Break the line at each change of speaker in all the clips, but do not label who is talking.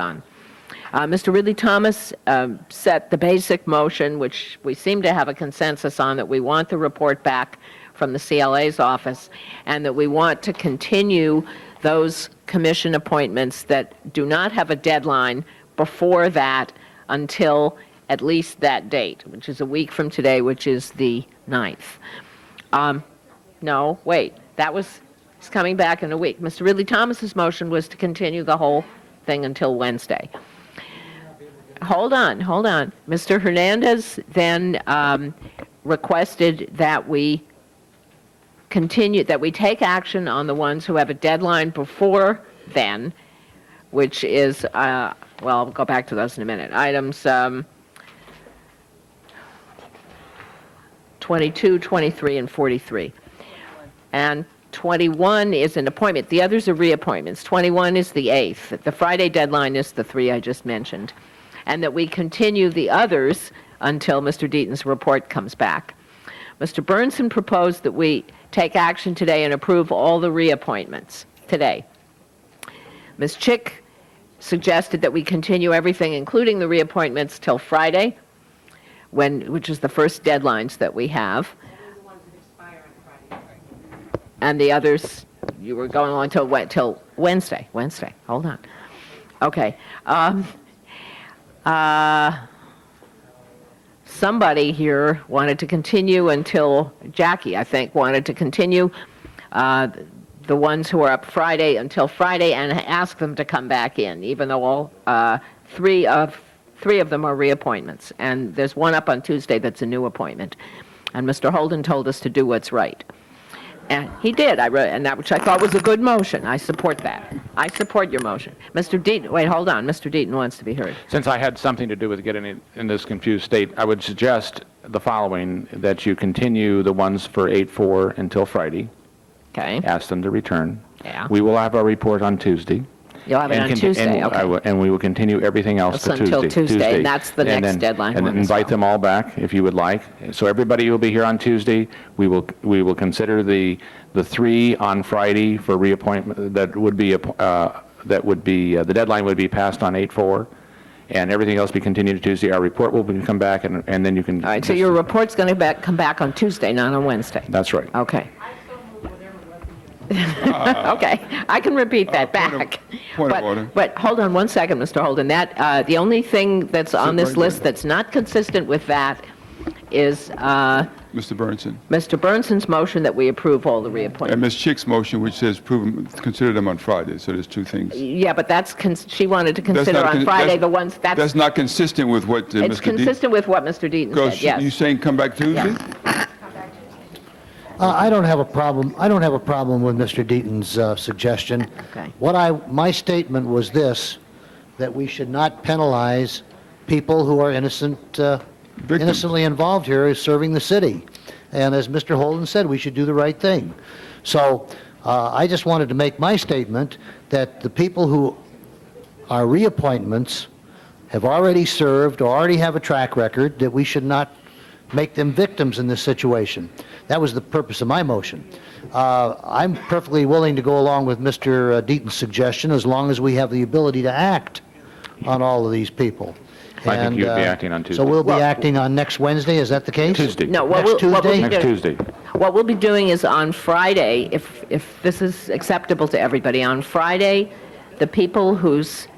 on. Uh, Mr. Ridley Thomas um, set the basic motion, which we seem to have a consensus on, that we want the report back from the CLA's office, and that we want to continue those commission appointments that do not have a deadline before that until at least that date, which is a week from today, which is the 9th. Um, No, wait, that was, he's coming back in a week. Mr. Ridley Thomas's motion was to continue the whole thing until Wednesday. Hold on, hold on. Mr. Hernandez then um, requested that we continue, that we take action on the ones who have a deadline before then, which is, uh, well, I'll go back to those in a minute. Items um, 22, 23, and 43. And 21 is an appointment. The others are reappointments. 21 is the 8th. The Friday deadline is the three I just mentioned. And that we continue the others until Mr. Deaton's report comes back. Mr. Burnson proposed that we take action today and approve all the reappointments today. Ms. Chick suggested that we continue everything, including the reappointments, till Friday, when, which is the first deadlines that we have. And the others, you were going on till, Wed- till Wednesday, Wednesday, hold on. Okay. um, uh, Somebody here wanted to continue until, Jackie, I think, wanted to continue uh, the ones who are up Friday until Friday and ask them to come back in, even though all, uh, three of, three of them are reappointments. And there's one up on Tuesday that's a new appointment. And Mr. Holden told us to do what's right. And he did, I wrote, and that which I thought was a good motion, I support that. I support your motion. Mr. Deaton, wait, hold on, Mr. Deaton wants to be heard.
Since I had something to do with getting it in this confused state, I would suggest the following, that you continue the ones for 8-4 until Friday,
Okay,
ask them to return.
Yeah.
We will have our report on Tuesday.
you'll have it
and
on
conti-
Tuesday,
and I
okay.
will- And we will continue everything else
That's
to Tuesday.
until Tuesday, and that's the next
then-
deadline
And
one
then
as
invite
well.
them all back if you would like. So everybody will be here on Tuesday. We will, we will consider the, the three on Friday for reappointment, that would be, app- uh, that would be, uh, the deadline would be passed on 8/4, and everything else be continued to Tuesday. Our report will be- come back, and, and then you can.
All right, so your report's going to come back on Tuesday, not on Wednesday.
That's right.
Okay. Okay, I can repeat that
Uh, point of-
back.
point of
But-
order.
But, hold on one second, Mr. Holden, that, uh, the only thing that's on this
right there.
list that's not consistent with that is uh,
Mr. Burnson.
Mr. Burnson's motion that we approve all the
And
reappointments.
Ms. Chick's motion, which says prove, 'em- consider them on Friday, so there's two things.
Yeah, but that's, cons- she wanted to
That's
consider
not
on
con-
Friday
that's-
the ones, that's,
That's not consistent with what uh, Mr.
it's
Deaton-
consistent with what Mr. Deaton said,
Because you
yes.
saying come back Tuesday?
Uh, I don't have a problem, I don't have a problem with Mr. Deaton's uh, suggestion.
Okay.
What I, my statement was this, that we should not penalize people who are innocent, uh,
Victims.
innocently involved here as serving the city. And as Mr. Holden said, we should do the right thing. So uh, I just wanted to make my statement that the people who are reappointments have already served or already have a track record, that we should not make them victims in this situation. That was the purpose of my motion. Uh, I'm perfectly willing to go along with Mr. Deaton's suggestion as long as we have the ability to act on all of these people.
I think
And,
you'd be
uh,
acting on Tuesday.
So we'll be
Well-
acting on next Wednesday, is that the case?
Tuesday.
No, what
Next
we'll, what we'll be
Tuesday?
Next
doing,
Tuesday.
what we'll be doing is on Friday, if, if this is acceptable to everybody, on Friday, the people whose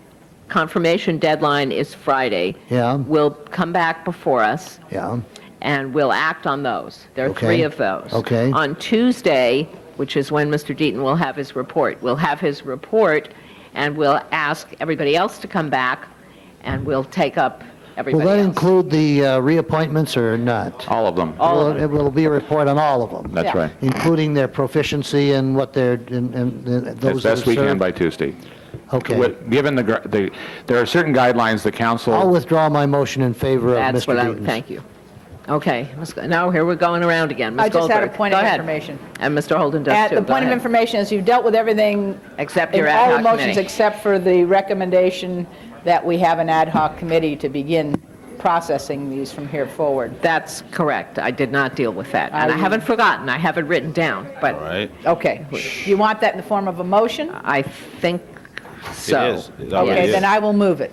confirmation deadline is Friday
Yeah.
will come back before us.
Yeah,
and we'll act on those. There are
Okay.
three of those.
Okay.
On Tuesday, which is when Mr. Deaton will have his report, we'll have his report, and we'll ask everybody else to come back, and we'll take up
will
everybody
that
else.
include the uh, reappointments or not?
All of them.
All of
Will- It will be a report on all of them.
That's
Oh, Yeah.
right.
including their proficiency and what they're, and, and and
As
those that
best we can
serve?
by Tuesday.
Okay.
With- Given the, gr- the, there are certain guidelines the council.
I'll withdraw my motion in favor of Mr.
That's what I,
Deaton's.
thank you. Okay, Ms. Go- now here we're going around again. Ms.
I just had a
Goldberg,
point of
go ahead.
information.
And Mr. Holden does
At
too.
the
Go
point of
ahead.
information is you've dealt with everything.
Except
in
your ad hoc
All the motions
committee.
except for the recommendation that we have an ad hoc committee to begin processing these from here forward.
That's correct. I did not deal with that. And I
I-
haven't forgotten. I have it written down, but
Okay. You want that in the form of a motion?
I think So.
is. It's already
Okay,
is.
then I will move it.